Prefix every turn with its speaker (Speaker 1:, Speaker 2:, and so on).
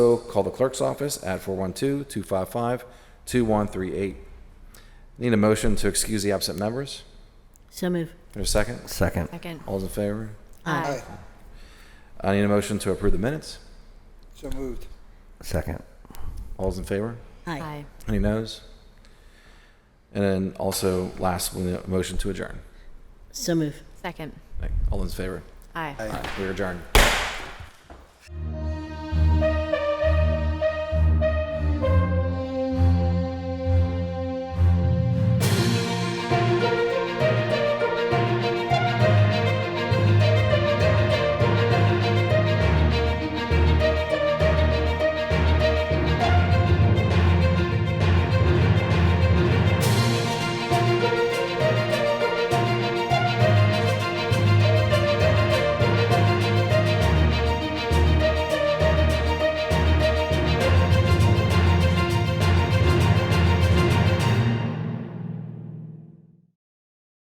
Speaker 1: So call the clerk's office at 412-255-2138. Need a motion to excuse the absent members?
Speaker 2: So move.
Speaker 1: There's a second?
Speaker 3: Second.
Speaker 4: Second.
Speaker 1: All those in favor?
Speaker 2: Aye.
Speaker 5: Aye.
Speaker 1: I need a motion to approve the minutes.
Speaker 5: So moved.
Speaker 3: Second.
Speaker 1: All those in favor?
Speaker 2: Aye.
Speaker 4: Aye.
Speaker 1: Any noes? And then also, last, we need a motion to adjourn.
Speaker 2: So move.
Speaker 4: Second.
Speaker 1: All those in favor?
Speaker 4: Aye.
Speaker 1: Aye. We are adjourned.